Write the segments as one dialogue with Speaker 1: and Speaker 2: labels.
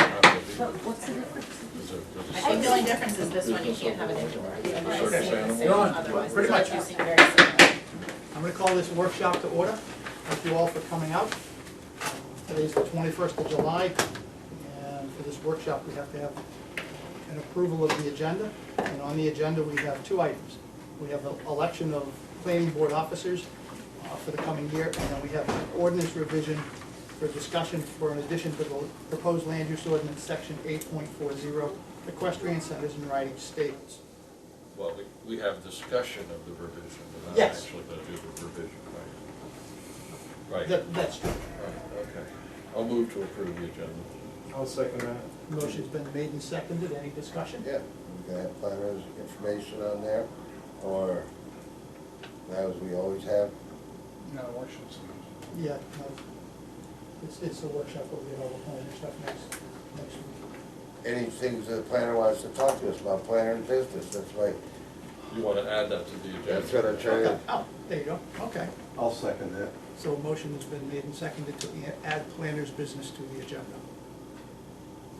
Speaker 1: But what's the difference?
Speaker 2: There's a- there's a
Speaker 3: I think the
Speaker 2: sunset-
Speaker 3: only difference is this one, you can't have an indoor.
Speaker 2: circus animal.
Speaker 3: Otherwise,
Speaker 4: Pretty
Speaker 3: it's
Speaker 4: much.
Speaker 3: all using very similar.
Speaker 4: I'm gonna call this workshop to order. Thank you all for coming out. Today's the twenty-first of July, and for this workshop, we have to have an approval of the agenda. And on the agenda, we have two items. We have the election of planning board officers uh, for the coming year, and then we have an ordinance revision for discussion for an addition to the proposed land use ordinance, section eight point four zero, equestrian centers and riding stables.
Speaker 2: Well, we- we have discussion of the revision, but not
Speaker 4: Yes.
Speaker 2: actually going to do the revision, right? Right,
Speaker 4: That, that's true.
Speaker 2: right, okay. I'll move to approve the agenda.
Speaker 5: I'll second that.
Speaker 4: Motion's been made and seconded. Any discussion?
Speaker 6: Yeah, we got planners information on there, or as we always have.
Speaker 7: No, election season.
Speaker 4: Yeah, no. It's, it's the workshop, we'll get all the planning stuff next, next week.
Speaker 6: Any things that the planner wants to talk to us about, planner and business, that's why,
Speaker 2: You want to add that to the agenda?
Speaker 6: that's what I'm trying to,
Speaker 4: Oh, there you go, okay.
Speaker 5: I'll second that.
Speaker 4: So a motion has been made and seconded to a- add planner's business to the agenda.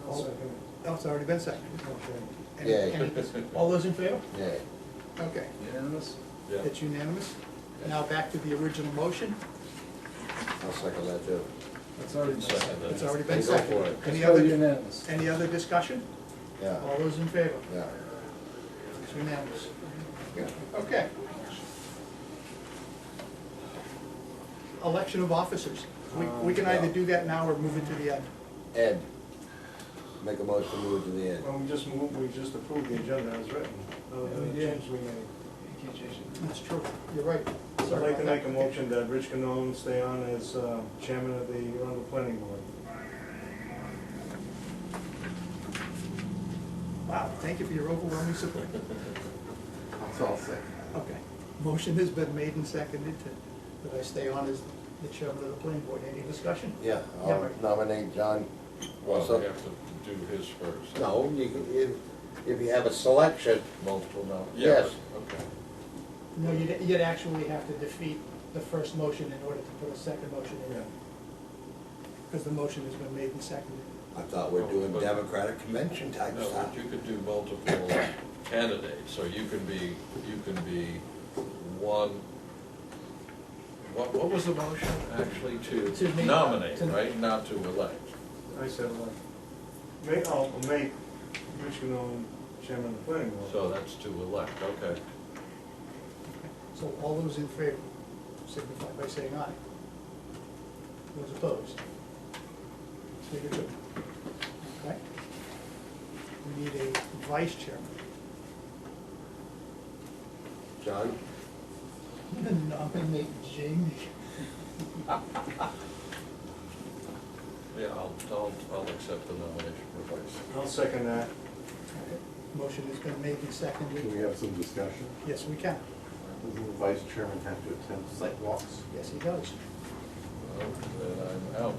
Speaker 5: I'll second
Speaker 4: Oh, it's already been seconded. Any-
Speaker 6: Yeah.
Speaker 4: any- All those in favor?
Speaker 6: yeah.
Speaker 4: Okay,
Speaker 7: Unanimous?
Speaker 2: Yeah.
Speaker 4: it's unanimous. Now back to the original motion.
Speaker 6: I'll second that too.
Speaker 7: That's already been
Speaker 2: Second
Speaker 7: seconded.
Speaker 2: that.
Speaker 4: It's already been
Speaker 6: Go for
Speaker 4: seconded.
Speaker 6: it.
Speaker 4: Any
Speaker 7: It's already
Speaker 4: other,
Speaker 7: unanimous.
Speaker 4: any other discussion?
Speaker 6: Yeah,
Speaker 4: All those in favor?
Speaker 6: yeah.
Speaker 4: It's unanimous. Okay. Election of officers. We, we can
Speaker 5: Um,
Speaker 4: either do that now or move it to the end.
Speaker 6: Ed, make a motion to move to the end.
Speaker 5: Well, we just moved, we just approved the agenda as written. No, no change we made.
Speaker 4: That's true. You're right.
Speaker 5: So I'd like to make a
Speaker 4: motion.
Speaker 5: motion that Rich Canone stay on as uh, chairman of the Arundel Planning Board.
Speaker 4: Wow, thank you for your overwhelming support.
Speaker 7: That's all second.
Speaker 4: Okay. Motion has been made and seconded to, that I stay on as the chairman of the planning board. Any discussion?
Speaker 6: Yeah,
Speaker 4: Yeah,
Speaker 6: I'll
Speaker 4: right.
Speaker 6: nominate John.
Speaker 2: Well,
Speaker 6: So-
Speaker 2: we have to do his first.
Speaker 6: No, you can, if, if you have a selection, multiple no,
Speaker 2: Yeah,
Speaker 6: yes.
Speaker 2: but- Okay.
Speaker 4: No, you'd, you'd actually have to defeat the first motion in order to put a second motion in, because the motion has been made and seconded.
Speaker 6: I thought we're doing Democratic convention type
Speaker 2: No,
Speaker 6: stuff.
Speaker 2: but you could do multiple candidates, so you can be, you can be one, what, what was the motion actually
Speaker 4: To
Speaker 2: to
Speaker 4: make-
Speaker 2: nominate,
Speaker 4: to-
Speaker 2: right, not to elect?
Speaker 5: I said, like, make, I'll make Rich Canone chairman of the planning board.
Speaker 2: So that's to elect, okay.
Speaker 4: So all those in favor signify by saying aye. Those opposed? Three to two. Okay? We need a vice chairman.
Speaker 6: John?
Speaker 4: I'm gonna nominate Jamie.
Speaker 2: Yeah, I'll, I'll, I'll accept the nomination for vice.
Speaker 5: I'll second that.
Speaker 4: Motion has been made and
Speaker 8: Can we
Speaker 4: seconded.
Speaker 8: have some discussion?
Speaker 4: Yes, we can.
Speaker 8: Doesn't the vice chairman have to attend site walks?
Speaker 4: Yes, he does.
Speaker 2: Well, Then I'm out.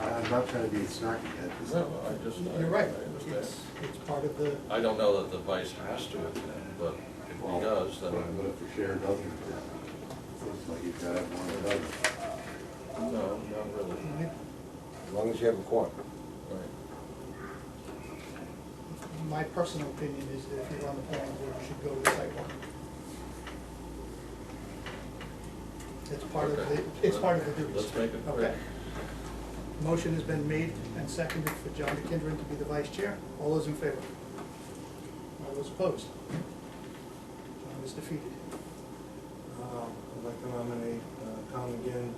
Speaker 8: I- I'm not trying to be snarky at this.
Speaker 2: No, I just, I I
Speaker 4: You're right.
Speaker 2: understand.
Speaker 4: It's, it's part of the,
Speaker 2: I don't know that the vice has to attend, but if
Speaker 8: Well,
Speaker 2: he does, then,
Speaker 8: But if the chair doesn't attend, it looks like you've got to have one or the other.
Speaker 2: no, not really.
Speaker 6: As long as you have a quorum.
Speaker 2: Right.
Speaker 4: my personal opinion is that if you're on the planning board, you should go to the sidewalk. It's part of the,
Speaker 2: Okay.
Speaker 4: it's part of the duties.
Speaker 2: Let's make it quick.
Speaker 4: Okay. Motion has been made and seconded for John McKendron to be the vice chair. All those in favor? All those opposed? John is defeated.
Speaker 5: Uh, I'd like to nominate uh, Tom McGinn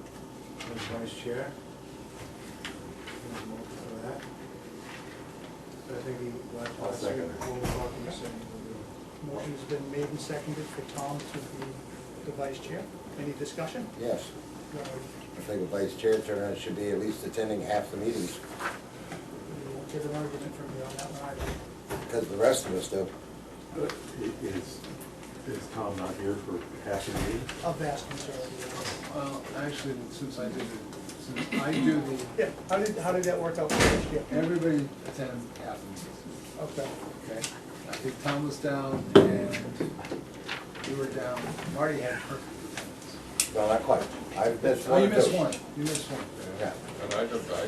Speaker 5: as vice chair. There's a motion for that. I think he, last
Speaker 8: I'll
Speaker 5: last year,
Speaker 8: second it.
Speaker 5: when we were talking, he said he
Speaker 4: Motion has been made and seconded for Tom to be the vice chair. Any discussion?
Speaker 6: Yes,
Speaker 4: No.
Speaker 6: I think a vice chair turnout should be at least attending half the meetings,
Speaker 4: We won't get an argument from you on that one either.
Speaker 6: because the rest of us do.
Speaker 8: But i- Is, is Tom not here for half the meeting?
Speaker 4: A vast majority of it.
Speaker 7: Well, actually, since I did it, since I do the,
Speaker 4: Yeah, how did, how did that work out for this year?
Speaker 7: everybody attends half the meetings,
Speaker 4: Okay,
Speaker 7: okay? I think Tom was down and you were down. Marty had perfect attendance.
Speaker 6: No, not quite. I've missed
Speaker 7: Oh,
Speaker 6: one or
Speaker 7: you missed
Speaker 6: two.
Speaker 7: one. You missed one.
Speaker 6: Yeah.
Speaker 2: And I, don't- I